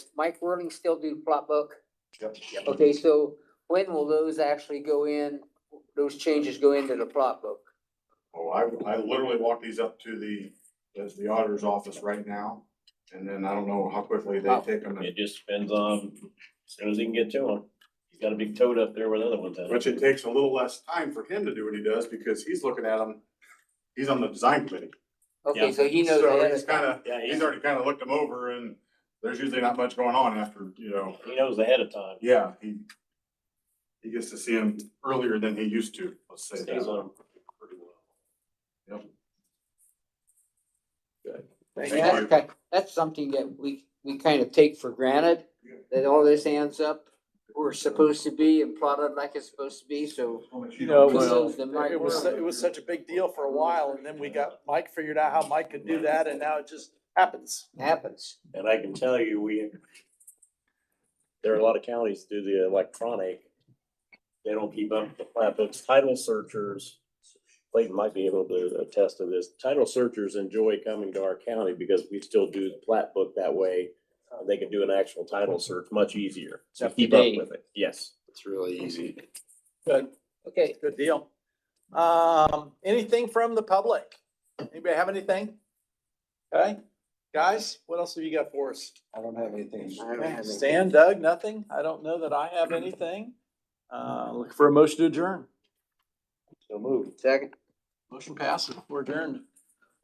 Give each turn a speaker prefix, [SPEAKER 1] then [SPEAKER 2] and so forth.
[SPEAKER 1] Mike Whirling still do the plot book?
[SPEAKER 2] Yep.
[SPEAKER 1] Okay, so when will those actually go in, those changes go into the plot book?
[SPEAKER 2] Oh, I, I literally walked these up to the, that's the auditor's office right now, and then I don't know how quickly they
[SPEAKER 1] Oh.
[SPEAKER 2] take them.
[SPEAKER 3] It just depends on, as soon as he can get to him. He's got a big toad up there with other ones. at.
[SPEAKER 2] Which it takes a little less time for him to do what he does, because he's looking at them, he's on the design committee.
[SPEAKER 1] Okay,
[SPEAKER 3] Yeah.
[SPEAKER 1] so he knows
[SPEAKER 2] So
[SPEAKER 1] ahead
[SPEAKER 2] he's
[SPEAKER 1] of time.
[SPEAKER 2] kinda,
[SPEAKER 3] Yeah, he,
[SPEAKER 2] he's already kinda looked them over, and there's usually not much going on after, you know,
[SPEAKER 3] he knows ahead of time.
[SPEAKER 2] yeah, he. He gets to see them earlier than he used to, let's say
[SPEAKER 3] Stays
[SPEAKER 2] that.
[SPEAKER 3] on him pretty well.
[SPEAKER 2] Thank
[SPEAKER 1] And that's
[SPEAKER 2] you.
[SPEAKER 1] ki- That's something that we, we kind of take for granted,
[SPEAKER 2] Yeah.
[SPEAKER 1] that all this ends up where it's supposed to be and plotted like it's supposed to be, so.
[SPEAKER 4] You know,
[SPEAKER 1] kudos
[SPEAKER 4] Oh, well,
[SPEAKER 1] to Mike
[SPEAKER 4] it was,
[SPEAKER 1] Whirling.
[SPEAKER 4] it was such a big deal for a while and then we got, Mike figured out how Mike could do that and now it just happens.
[SPEAKER 1] Happens.
[SPEAKER 3] And I can tell you, we, there are a lot of counties do the electronic. They don't keep up with the plat books. Title searchers, Clayton might be able to attest to this. Title searchers enjoy coming to our county because we still do the plat book that way. Uh, They can do an actual title search much easier. So
[SPEAKER 1] Up to
[SPEAKER 3] keep up
[SPEAKER 1] date.
[SPEAKER 3] with it. Yes.
[SPEAKER 5] It's really easy.
[SPEAKER 4] Good,
[SPEAKER 1] Okay,
[SPEAKER 4] good deal. Um, anything from the public? Anybody have anything? Okay, guys, what else have you got for us?
[SPEAKER 5] I don't have anything.
[SPEAKER 1] I don't have anything.
[SPEAKER 4] Stan, Doug, nothing? I don't know that I have anything. Uh, look for a motion to adjourn.
[SPEAKER 3] So move.
[SPEAKER 1] second.
[SPEAKER 4] Motion passes. We're adjourned.